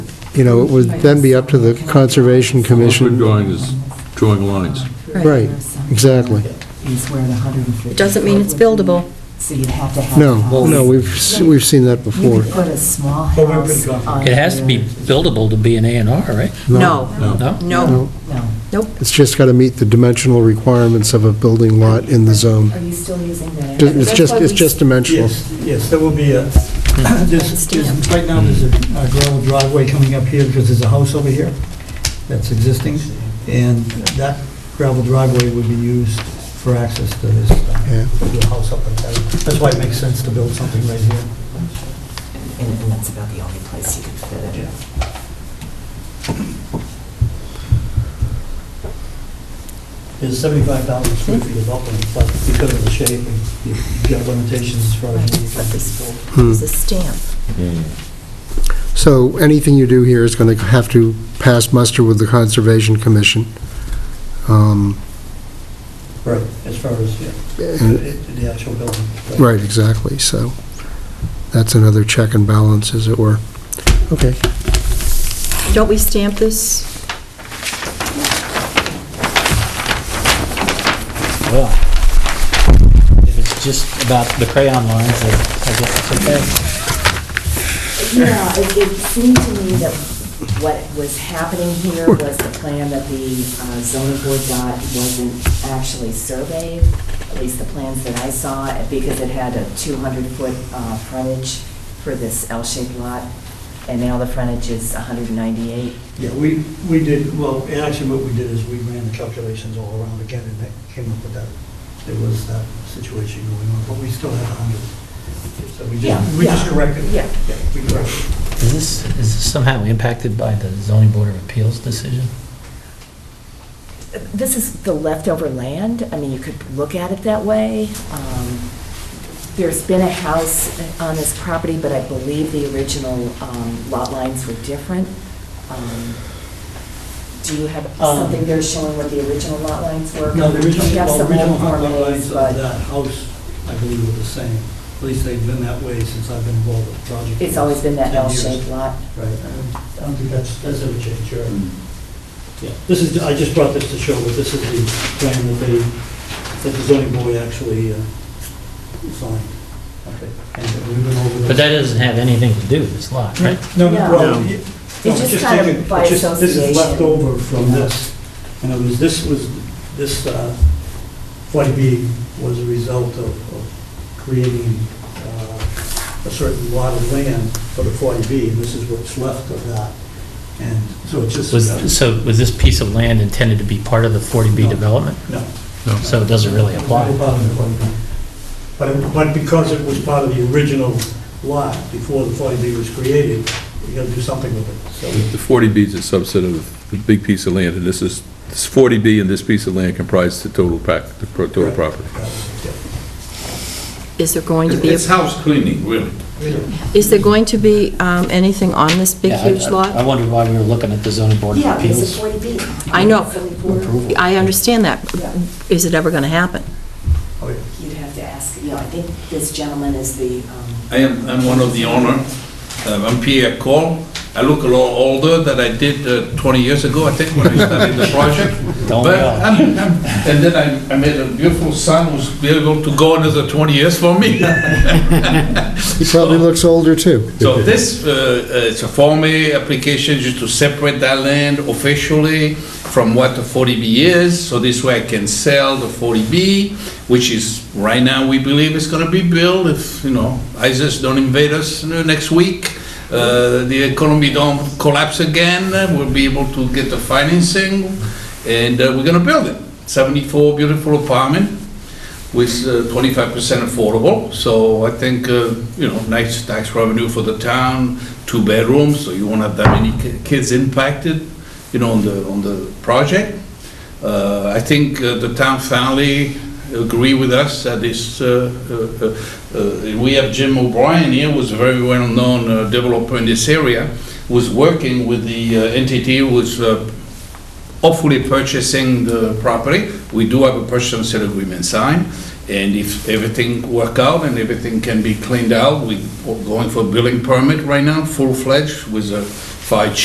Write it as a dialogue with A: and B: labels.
A: you know, it would then be up to the Conservation
B: Liquid
A: Commission.
B: drawing is drawing lines.
A: Right, exactly.
C: Is where the 150.
D: It doesn't mean it's buildable.
C: So you'd have to have.
A: No, no, we've, s- we've seen that
C: You
A: before.
C: could put a small
E: Well, we've
C: house
E: been-
C: on.
F: It has to be buildable to be an A and R, right?
D: No,
F: No?
D: no,
A: No,
C: your- No.
A: It's just got to meet the dimensional requirements of a building lot in the zone.
C: Are you still using that?
A: Ju- It's just, it's just dimensional.
E: Yes, yes, there will be a, there's, there's- right now, there's a a gravel driveway coming up here because there's a house over here that's existing, and that gravel driveway would be used for access to this, uh,
A: Yeah.
E: to the house up like that. That's why it makes sense to build something right here.
C: And and that's about the only place you can fit it.
E: There's 75,000 square feet of upland, but because of the shape, you've got limitations as far as what you
C: Right,
E: can
C: but this
E: build.
F: Mm-hmm.
A: Hmm.
C: is a stamp.
A: So anything you do here is going to have to pass muster with the Conservation Commission. Um,
E: Right, as far as, yeah,
A: and-
E: the the actual building.
A: Uh, Right, exactly, so that's another check and balance, as it were. Okay.
D: don't we stamp this?
G: Well, if it's just about the crayon lines, then I guess it's okay.
C: Yeah, it it seemed to me that what was happening here was the plan that the uh, zoning board got wasn't actually surveyed, at least the plans that I saw, because it had a 200-foot uh, frontage for this L-shaped lot, and now the frontage is 198.
E: Yeah, we, we did, well, and actually what we did is we ran the calculations all around again and that came up with that. There was that situation going on, but we still had 100. So we
C: Yeah,
E: just, we just
C: yeah,
E: corrected. it.
C: yeah.
E: Yeah, we corrected.
F: Is this, is this somehow impacted by the zoning board of appeals decision?
C: This is the leftover land, I mean, you could look at it that way. Um, There's been a house on this property, but I believe the original um, lot lines were different. Um, Do you have
E: Um,
C: something there showing what the original lot lines were?
E: it. No, the original,
C: We have
E: well,
C: some old
E: original lot
C: Form As,
E: lines of
C: but
E: that house, I believe, were the same. At least they've been that way since I've been involved with the project.
C: It's always been that
E: 10 years.
C: L-shaped lot.
E: Right, I don't think that's, that's ever changed, right? Yeah, this is, I just brought this to show that this is the plan that they, that the zoning board actually uh, signed. Okay, And we went over.
F: But that doesn't have anything to do with this lot, right?
E: No, no,
C: No.
E: well, you- no,
C: It's just kind of
E: taken-
C: by
E: it's just- This
C: association.
E: is left over from
C: Yeah.
E: this, and it was, this was, this uh, 40B was a result of of creating uh, a certain lot of land for the 40B, and this is what's left of that, and so it's just.
F: Was, so was this piece of land intended to be part of the 40B
E: No.
F: development?
E: No.
F: So it doesn't really
E: It's
F: apply?
E: not part of the 40B. But, it- but because it was part of the original lot before the 40B was created, you gotta do something with it, so.
B: The 40B is a subset of the big piece of land, and this is, this 40B and this piece of land comprise the total pack, the pro- total property.
E: uh,
D: Is there going to be,
H: It's
D: a-
H: house cleaning, really.
D: is there going to be um, anything on this big
F: Yeah, I-
D: huge
F: I
D: lot?
F: wondered why we were looking at the zoning board of
C: Yeah, it's
F: appeals.
C: a 40B.
D: I know.
F: Approval.
D: I understand that.
C: Yeah.
D: Is it ever going to happen?
E: Oh, yeah.
C: You'd have to ask, you know, I think this gentleman is the, um,
H: I am, I'm one of the owner. Um, I'm Pierre Cole. I look a lot older than I did uh, 20 years ago, I think, when I started the project.
F: Don't
H: But
F: yell.
H: I'm- I'm- And then I, I made a beautiful son who's be able to go another 20 years for me.
A: He probably looks older, too.
H: So this, uh, uh, it's a Form A application just to separate that land officially from what the 40B is, so this way I can sell the 40B, which is, right now, we believe is gonna be built if, you know, ISIS don't invade us you know, next week, uh, the economy don't collapse again, uh, we'll be able to get the financing, and uh, we're gonna build it. 74 beautiful apartment, with uh, twenty-five percent affordable, so I think, uh, you know, nice tax revenue for the town, two bedrooms, so you won't have that many ki- kids impacted, you know, on the, on the project. Uh, I think uh, the town family agree with us that this, uh, uh, uh, uh, we have Jim O'Brien here, who's a very well-known uh, developer in this area, was working with the uh, entity who's uh, hopefully purchasing the property. We do have a purchase and sale agreement signed, and if everything work out and everything can be cleaned out, we- we're going for a building permit right now, full-fledged with a fire